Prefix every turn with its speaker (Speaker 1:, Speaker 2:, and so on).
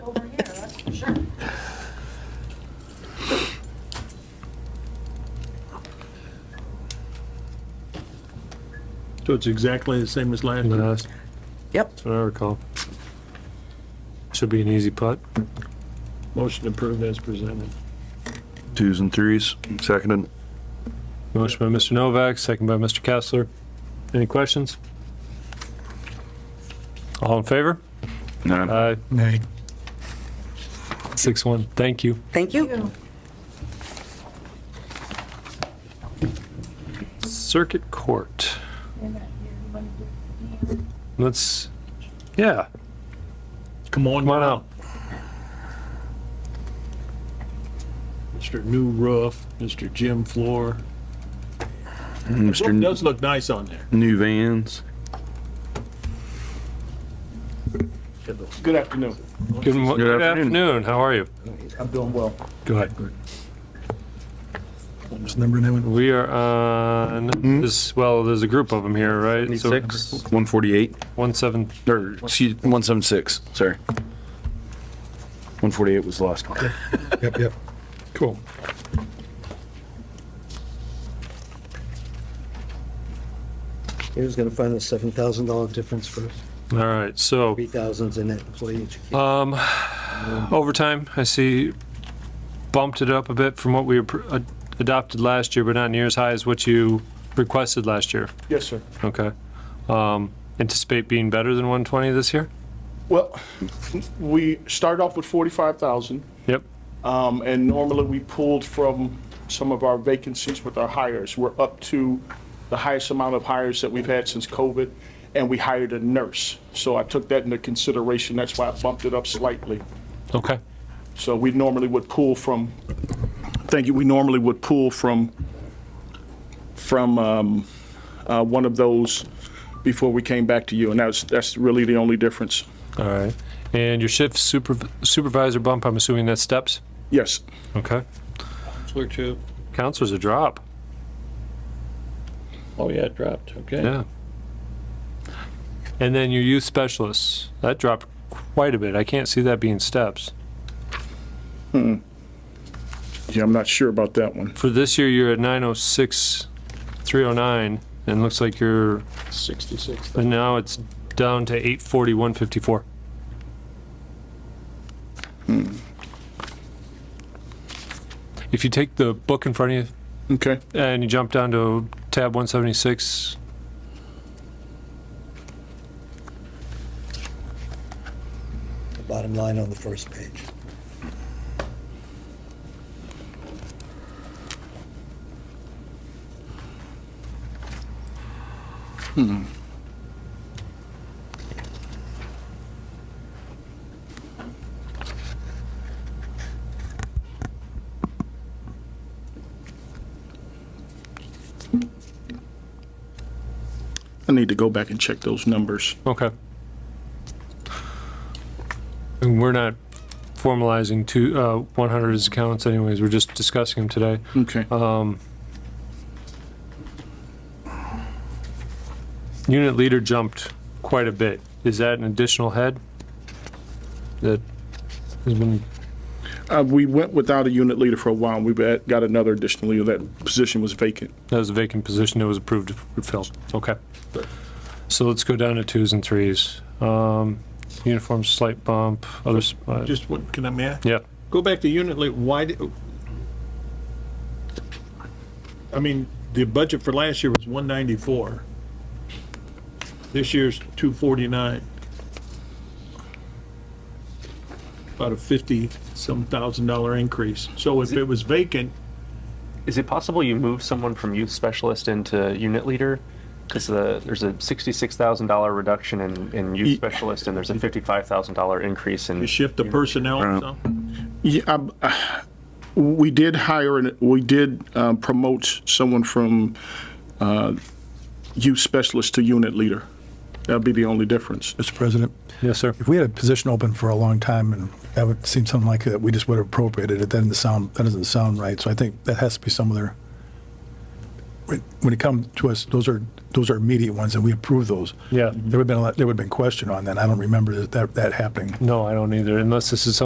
Speaker 1: So it's exactly the same as last year?
Speaker 2: That's
Speaker 3: Yep.
Speaker 2: what I recall. Should be an easy putt.
Speaker 1: Motion approved as presented.
Speaker 4: Twos and threes, seconded.
Speaker 2: Motion by Mr. Novak, second by Mr. Kessler. Any questions? All in favor?
Speaker 4: Nine.
Speaker 2: Aye. Six one. Thank you.
Speaker 3: Thank you.
Speaker 2: Circuit Court. Let's, yeah,
Speaker 1: Come on,
Speaker 2: come on out.
Speaker 1: Mr. New Roof, Mr. Gym Floor.
Speaker 4: Mr.
Speaker 1: Roof
Speaker 4: N-
Speaker 1: does look nice on there.
Speaker 4: New Vans.
Speaker 1: Good afternoon.
Speaker 2: Good mo-
Speaker 4: Good
Speaker 2: good
Speaker 4: afternoon.
Speaker 2: afternoon. How are you?
Speaker 5: I'm doing well.
Speaker 2: Go ahead.
Speaker 5: What's the number now?
Speaker 2: We are on
Speaker 4: Hmm?
Speaker 2: this, well, there's a group of them here, right? So
Speaker 4: One forty-eight,
Speaker 2: One seven,
Speaker 4: or, excuse, one seven six, sorry. One forty-eight was the last one.
Speaker 5: Yep, yep.
Speaker 2: cool.
Speaker 5: Here's gonna find the seven thousand dollar difference for
Speaker 2: All right, so
Speaker 5: three thousands in that employee education.
Speaker 2: um, overtime, I see bumped it up a bit from what we appro- ad- adopted last year, but not near as high as what you requested last year.
Speaker 1: Yes, sir.
Speaker 2: Okay. Um, anticipate being better than 120 this year?
Speaker 6: Well, we start off with 45,000,
Speaker 2: Yep.
Speaker 6: um, and normally we pulled from some of our vacancies with our hires. We're up to the highest amount of hires that we've had since COVID, and we hired a nurse. So I took that into consideration, that's why I bumped it up slightly.
Speaker 2: Okay.
Speaker 6: So we normally would pull from, thank you, we normally would pull from, from um, uh, one of those before we came back to you, and that's, that's really the only difference.
Speaker 2: All right. And your shift superv- supervisor bump, I'm assuming that's steps?
Speaker 6: Yes.
Speaker 2: Okay.
Speaker 1: Floor two.
Speaker 2: Counselor's a drop.
Speaker 1: Oh, yeah, it dropped, okay.
Speaker 2: Yeah. And then your youth specialists, that dropped quite a bit. I can't see that being steps.
Speaker 6: Yeah, I'm not sure about that one.
Speaker 2: For this year, you're at 906, 309, and looks like you're,
Speaker 1: Sixty-six.
Speaker 2: and now it's down to 840, 154.
Speaker 1: Hmm.
Speaker 2: If you take the book in front of you
Speaker 6: Okay.
Speaker 2: and you jump down to tab 176,
Speaker 5: Bottom line on the first page.
Speaker 6: I need to go back and check those numbers.
Speaker 2: Okay. And we're not formalizing two, uh, 100 as accounts anyways, we're just discussing them today.
Speaker 6: Okay.
Speaker 2: Unit leader jumped quite a bit. Is that an additional head? That has been,
Speaker 6: Uh, we went without a unit leader for a while, and we bet- got another additional leader. That position was vacant.
Speaker 2: that was a vacant position that was approved to fill. Okay. So let's go down to twos and threes. Um, uniform slight bump, others, uh,
Speaker 1: Just what, can I, may I?
Speaker 2: yeah.
Speaker 1: Go back to unit lead, why did? I mean, the budget for last year was one ninety-four. This year's two forty-nine. About a fifty-some thousand dollar increase. So if it was vacant,
Speaker 7: Is it possible you move someone from youth specialist into unit leader? Because the, there's a sixty-six thousand dollar reduction in, in youth specialist, and there's a fifty-five thousand dollar increase in.
Speaker 1: you shift the personnel or
Speaker 4: Right.
Speaker 1: something?
Speaker 6: Yeah, I'm- uh, we did hire and we did um, promote someone from uh, youth specialist to unit leader. That'd be the only difference.
Speaker 8: Mr. President,
Speaker 2: Yes, sir.
Speaker 8: if we had a position open for a long time and that would seem something like that, we just would have appropriated it. That doesn't sound, that doesn't sound right. So I think that has to be some other, when- when it comes to us, those are, those are immediate ones and we approve those.
Speaker 2: Yeah.
Speaker 8: There would have been, a lot- there would have been question on that. I don't remember that, that happening.
Speaker 2: No, I don't either, unless this is